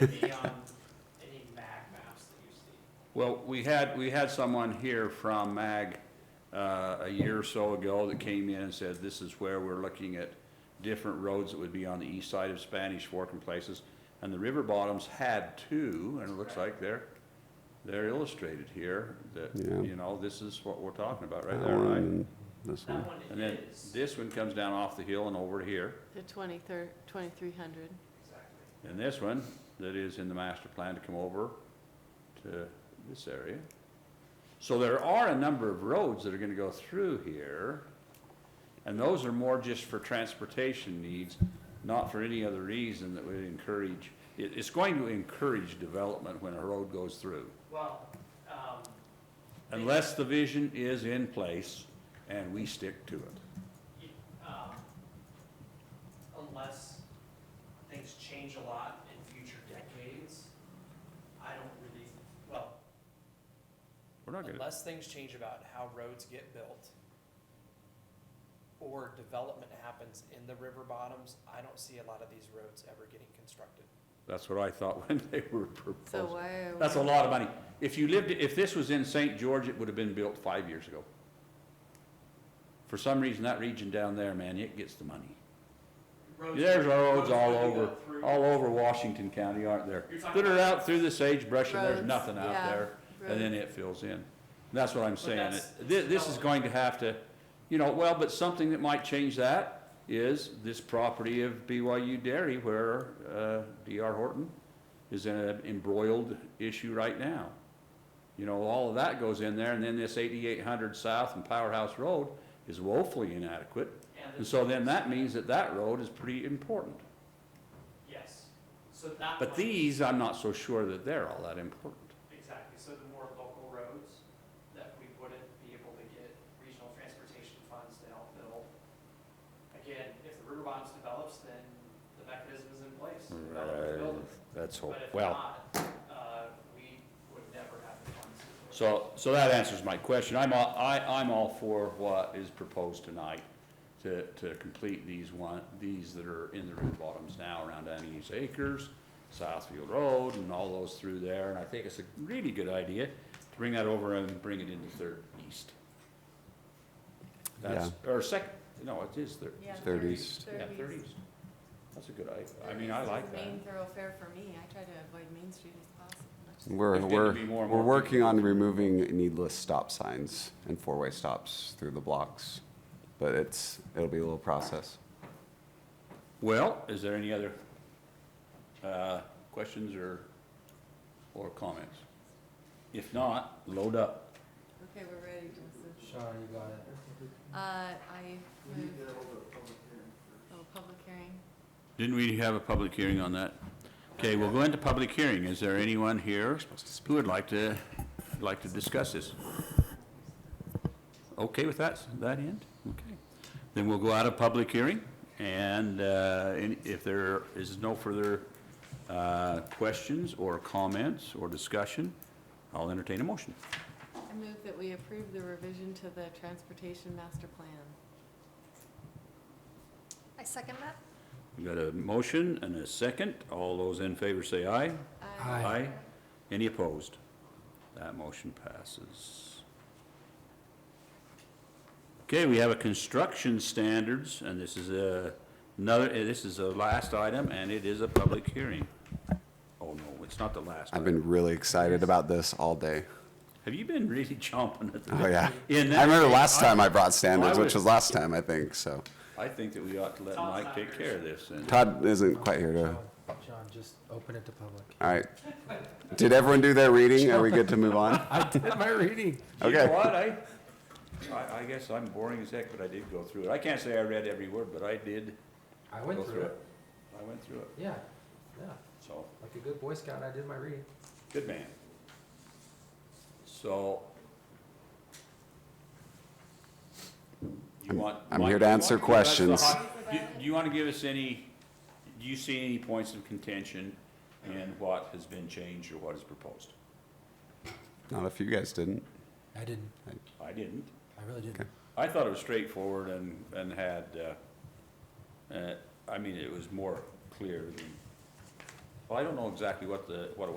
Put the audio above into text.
Would be on um, any mag maps that you see. Well, we had, we had someone here from MAG uh, a year or so ago that came in and said, this is where we're looking at different roads that would be on the east side of Spanish Fork and places. And the river bottoms had two, and it looks like they're, they're illustrated here, that, Yeah. you know, this is what we're talking about right Um, That there, one right? and This one. That one And then is, this one comes down off the hill and over here. The 23rd, 2300. exactly. And this one, that is in the master plan to come over to this area. So there are a number of roads that are gonna go through here, and those are more just for transportation needs, not for any other reason that would encourage, it, it's going to encourage development when a road goes through. Well, um, Unless the vision is in place and we stick to it. you- um, unless things change a lot in future decades, I don't really, well, We're not gonna, unless things change about how roads get built or development happens in the river bottoms, I don't see a lot of these roads ever getting constructed. that's what I thought when they were So proposing. why are That's a we, lot of money. If you lived, if this was in St. George, it would have been built five years ago. For some reason, that region down there, man, it gets the money. Roads- There's roads all that go over, through- all over Washington County, aren't there? You're talking That are about- out through the sagebrush and there's Roads, nothing out yeah, there, and then it fills in. That's what I'm saying. that's- This, this is going to have to, you know, well, but something that might change that is this property of BYU Dairy where, uh, DR Horton is in an embroiled issue right now. You know, all of that goes in there, and then this eighty-eight hundred south and Powerhouse Road is woefully inadequate. and And the- so then that means that that road is pretty important. Yes, so that But one- these, I'm not so sure that they're all that important. Exactly, so the more local roads that we wouldn't be able to get regional transportation funds to help build. Again, if the river bonds develops, then the mechanism is in place. to develop the building. That's hope, But if well, not, uh, we would never have the funds. to do it. so, so that answers my question. I'm, all- I, I'm all for what is proposed tonight to, to complete these one, these that are in the root bottoms now around Annie's Acres, Southfield Road and all those through there. And I think it's a really good idea to bring that over and bring it into Third East. That's, or second, no, it is Third. Yeah, Third East. Yeah, Third East. That's a good idea. I mean, I like Third East is the main that. thoroughfare for me, I try to avoid Main Street as possible. That's- We're, There's getting to we're, be more and we're more working people. on removing needless stop signs and four-way stops through the blocks, but it's, it'll be a little process. Well, is there any other uh, questions or, or comments? If not, load up. Okay, we're ready, Joseph. Sorry, you got it. Uh, I moved. Oh, public hearing. Didn't we have a public hearing on that? Okay, we'll go into public hearing. Is there anyone here who would like to, like to discuss this? Okay with that, that end? Okay. Then we'll go out of public hearing, and uh, any- if there is no further uh, questions or comments or discussion, I'll entertain a motion. I move that we approve the revision to the transportation master plan. I second that. We've got a motion and a second. All those in favor say aye. I Aye. Any opposed? That motion passes. Okay, we have a construction standards, and this is a, another, eh, this is the last item, and it is a public hearing. Oh, no, it's not the last. I've item. been really excited about this all day. Have you been really chomping at the? Oh, yeah. In that I remember case, last I- time I brought standards, I which would- was last time, I think, so. I think that we ought to let Todd's Mike not take here, care of this, and Todd isn't quite here to, John, John, just open it to public. all right. Did everyone do their reading? Are we good to move on? I did my reading. You know Okay. what, I, I, I guess I'm boring as heck, but I did go through it. I can't say I read every word, but I did I go went through it. I went through it, Yeah, yeah. so, Like a good Boy Scout, I did my reading. good man. So. You want? I'm Mike, here to you wanna answer give us the questions. hot- Do do you want to give us any, do you see any points of contention in what has been changed or what is proposed? Not if you guys didn't. I didn't. I didn't. I really didn't. Okay. I thought it was straightforward and, and had, uh, uh, I mean, it was more clear than Well, I don't know exactly what the, what it